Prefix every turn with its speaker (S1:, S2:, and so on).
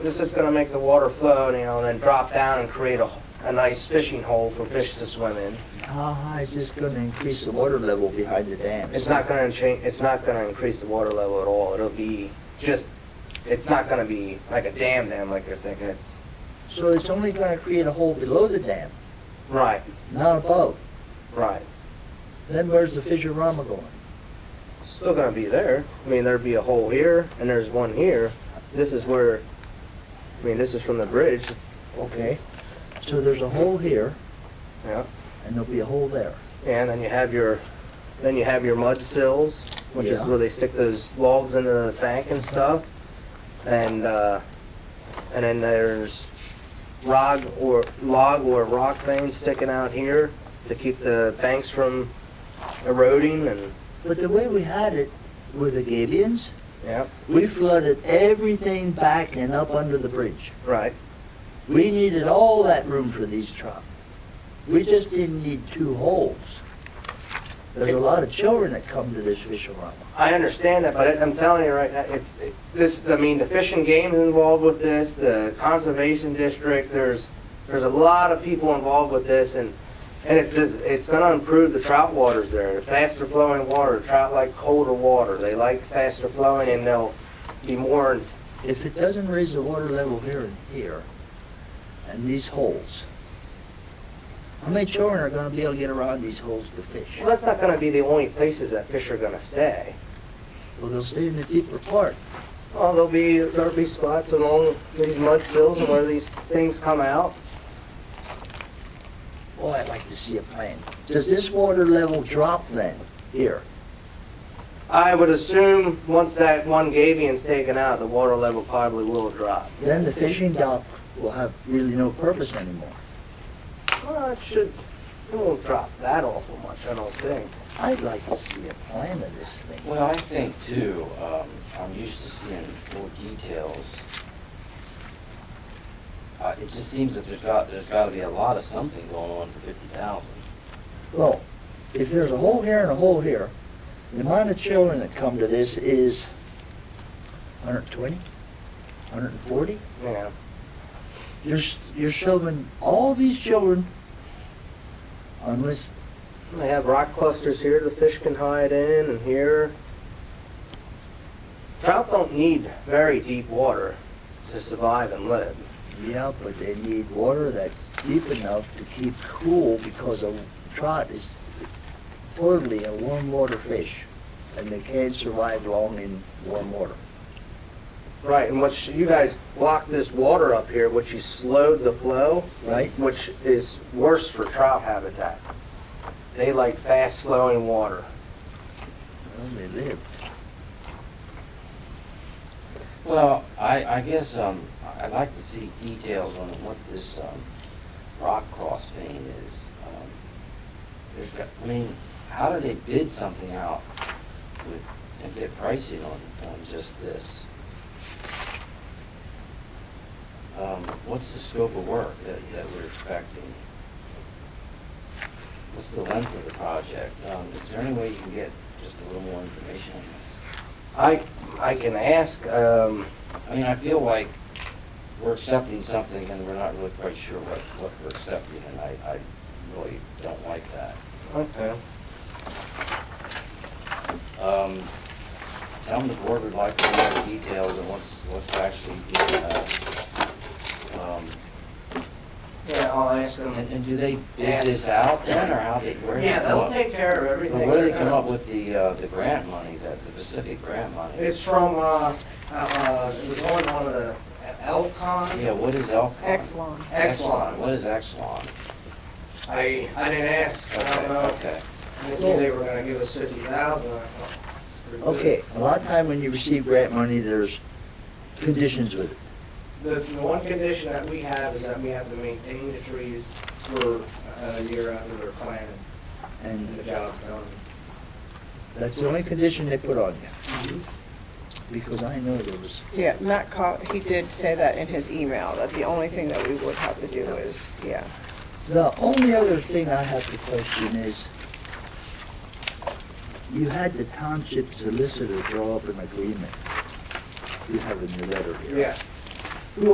S1: It's just gonna make the water flow, you know, and then drop down and create a, a nice fishing hole for fish to swim in.
S2: How high is this Uh-huh, gonna increase the water level behind the dam?
S1: It's not gonna change, it's not gonna increase the water level at all. It'll be just, it's not gonna be like a dam dam like you're thinking. It's,
S2: So it's only gonna create a hole below the dam,
S1: right,
S2: not above.
S1: right.
S2: Then where's the Fissurama going?
S1: Still gonna be there. I mean, there'd be a hole here and there's one here. This is where, I mean, this is from the bridge,
S2: Okay, so there's a hole here,
S1: yeah.
S2: and there'll be a hole there.
S1: And then you have your, then you have your mud sills, which is
S2: Yeah.
S1: where they stick those logs into the bank and stuff. And, uh, and then there's rock or log or rock veins sticking out here to keep the banks from eroding and,
S2: But the way we had it with the Gabions,
S1: yeah,
S2: we flooded everything back and up under the bridge.
S1: right,
S2: We needed all that room for these trout. We just didn't need two holes. There's a lot of children that come to this Fissurama.
S1: I understand that, but it- I'm telling you right now, it's, it- this, I mean, the Fish and Game is involved with this, the Conservation District, there's, there's a lot of people involved with this, and, and it's just, it's gonna improve the trout waters there, the faster flowing water, trout like colder water, they like faster flowing, and they'll be more, in-
S2: If it doesn't raise the water level here and here, and these holes, how many children are gonna be able to get around these holes to fish?
S1: well, that's not gonna be the only places that fish are gonna stay.
S2: Well, they'll stay in the deeper part.
S1: Well, there'll be, there'll be spots along these mud sills and where these things come out,
S2: Oh, I'd like to see a plan. Does this water level drop then, here?
S1: I would assume once that one Gabion's taken out, the water level probably will drop.
S2: Then the fishing dock will have really no purpose anymore.
S1: Well, it should, it won't drop that awful much, I don't think.
S2: I'd like to see a plan of this thing.
S3: Well, I think too, um, I'm used to seeing more details. Uh, it just seems that there's got, there's gotta be a lot of something going on for fifty thousand.
S2: Well, if there's a hole here and a hole here, the amount of children that come to this is 120, 140?
S1: Yeah,
S2: You're, s- you're shoving all these children unless,
S1: they have rock clusters here the fish can hide in and here. Trout don't need very deep water to survive and live.
S2: yeah, but they need water that's deep enough to keep cool because a trout is totally a warm water fish and they can't survive long in warm water.
S1: Right, and which you guys blocked this water up here, which you slowed the flow.
S2: Right.
S1: Which is worse for trout habitat. They like fast flowing water.
S2: Well, they live.
S3: Well, I, I guess, um, I- I'd like to see details on what this, um, rock cross vein is. Um, There's got, I mean, how do they bid something out with, and get pricing on, on just this? Um, what's the scope of work that, that we're expecting? What's the length of the project? Um, is there any way you can get just a little more information on this?
S1: I, I can ask, um,
S3: I mean, I feel like we're accepting something and we're not really quite sure what, what we're accepting, and I, I really don't like that.
S1: okay.
S3: Um, tell them the board would like to know the details and what's, what's actually being, uh, um,
S1: Yeah, I'll ask
S3: and,
S1: them.
S3: and do they bid
S1: Yes.
S3: this out then, or how they, where do they
S1: Yeah,
S3: come
S1: they'll
S3: up?
S1: take care of everything.
S3: Where do they come up with the, uh, the grant money, that, the Pacific grant money?
S1: It's from, uh, uh, it was on one of the Elcon,
S3: Yeah, what is Elcon?
S4: Exelon.
S1: Exelon.
S3: What is Exelon?
S1: I, I didn't ask, I
S3: Okay,
S1: don't know.
S3: Okay.
S1: I just knew they were gonna give us fifty thousand.
S2: Okay, a lot of time when you receive grant money, there's conditions with it.
S1: The, the one condition that we have is that we have to maintain the trees for uh, a year after they're planted
S2: And
S1: and the job's done.
S2: that's the only condition they put on you. Because I know there was,
S4: Yeah, Matt called, he did say that in his email, that the only thing that we would have to do is, yeah.
S2: the only other thing I have to question is, you had the township solicitor draw up an agreement. You have in your letter here.
S1: Yeah,